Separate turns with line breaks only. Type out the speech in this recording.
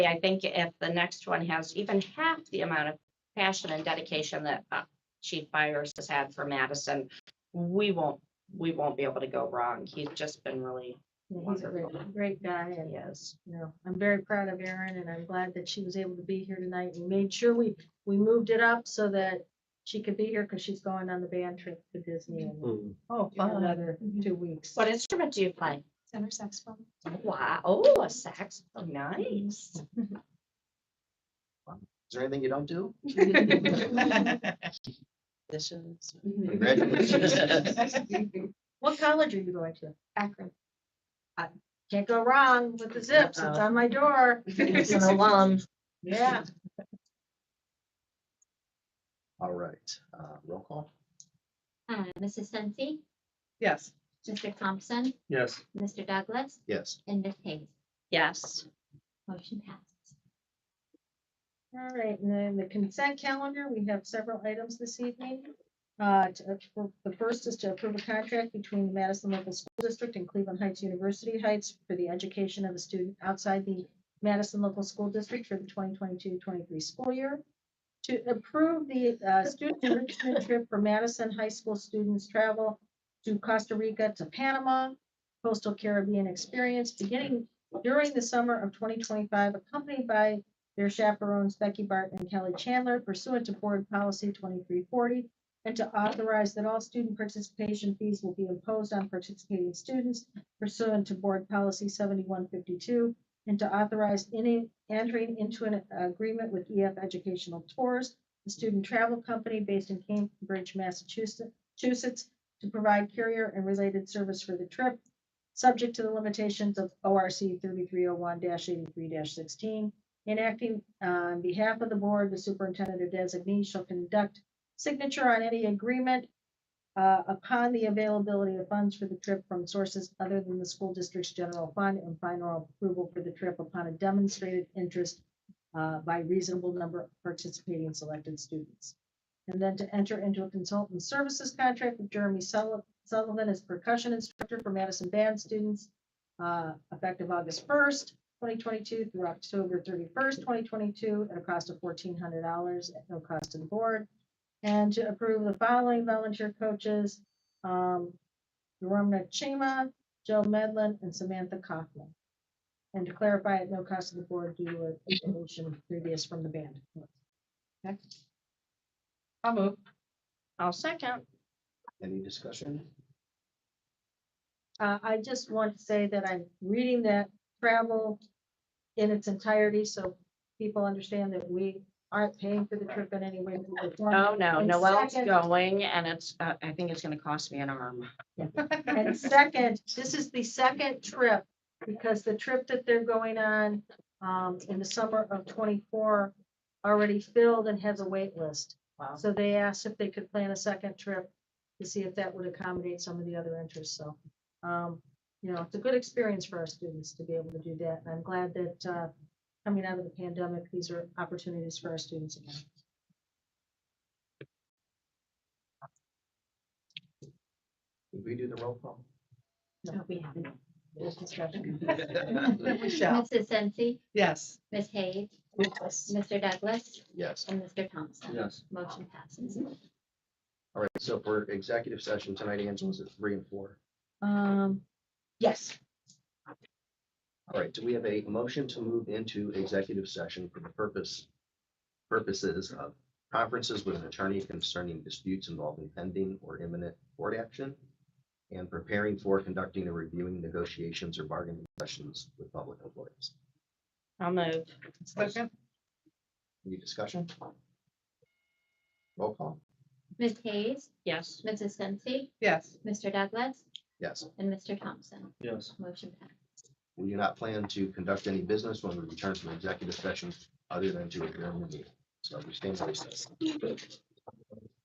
I think if the next one has even half the amount of passion and dedication that uh, Chief Byers has had for Madison, we won't, we won't be able to go wrong. He's just been really,
He's a great- great guy and,
he is.
you know, I'm very proud of Erin and I'm glad that she was able to be here tonight and made sure we, we moved it up so that she could be here because she's going on the band trip to Disney in
Hmm.
Oh, fun.
another
Mm-hmm.
two weeks.
What instrument do you play?
Center saxophone.
Wow, oh, a saxophone, nice.
Is there anything you don't do?
Dishes.
What college are you going to?
Akron.
Can't go wrong with the zips. It's on my door.
He's an alum.
Yeah.
All right, uh, roll call.
Uh, Mrs. Sensi,
Yes.
Mr. Thompson,
Yes.
Mr. Douglas,
Yes.
and Ms. Hayes.
Yes,
Motion passes.
All right, and then the consent calendar, we have several items this evening. Uh, to- uh, The first is to approve a contract between the Madison Local School District and Cleveland Heights University Heights for the education of a student outside the Madison Local School District for the 2022-23 school year. To approve the uh, student enrichment trip for Madison High School students travel to Costa Rica to Panama, coastal Caribbean experience beginning during the summer of 2025, accompanied by their chaperones Becky Barton and Kelly Chandler pursuant to board policy twenty-three forty, and to authorize that all student participation fees will be imposed on participating students pursuant to board policy seventy-one fifty-two, and to authorize any entering into an agreement with EF Educational Tours, a student travel company based in Cambridge, Massachusetts, Massachusetts, to provide carrier and related service for the trip, subject to the limitations of ORC thirty-three oh one eighty-three sixteen, in acting on behalf of the board, the superintendent or designee shall conduct signature on any agreement uh, upon the availability of funds for the trip from sources other than the school district's general fund and final approval for the trip upon a demonstrated interest uh, by reasonable number of participating selected students. And then to enter into a consultant services contract with Jeremy Sulli- Sullivan as percussion instructor for Madison band students uh, effective August first twenty twenty-two through October thirty-first, twenty twenty-two, at a cost of fourteen hundred dollars at no cost to the board. And to approve the following volunteer coaches, um, Ramna Chima, Joe Medlin, and Samantha Kaufman. And to clarify, at no cost to the board due to a motion previous from the band.
I'll move.
I'll second.
Any discussion?
Uh, I just want to say that I'm reading that travel in its entirety, so people understand that we aren't paying for the trip in any way. shape, or form.
Oh, no,
And
Noel's
second-
going and it's, uh, I think it's gonna cost me an arm.
And second, this is the second trip, because the trip that they're going on um, in the summer of twenty-four already filled and has a wait list.
Wow.
So they asked if they could plan a second trip to see if that would accommodate some of the other interests, so. um, You know, it's a good experience for our students to be able to do that, and I'm glad that uh, coming out of the pandemic, these are opportunities for our students again.
Did we do the roll call?
No, we haven't. There's discussion.
Michelle,
Mrs. Sensi,
yes.
Ms. Hayes,
Yes.
Mr. Douglas,
Yes.
and Mr. Thompson.
Yes.
Motion passes.
All right, so for executive session tonight, Angela's at three and four.
Um, Yes.
All right, do we have a motion to move into executive session for the purpose, purposes of conferences with an attorney concerning disputes involving pending or imminent court action and preparing for conducting or reviewing negotiations or bargaining sessions with public employees?
I'll move.
Second?
Any discussion? Roll call?
Ms. Hayes,
Yes,
Mrs. Sensi,
Yes.
Mr. Douglas,
Yes.
and Mr. Thompson.
Yes.
Motion passes.
We do not plan to conduct any business when we return from executive session other than to adjourn the meeting. So we stand in recess.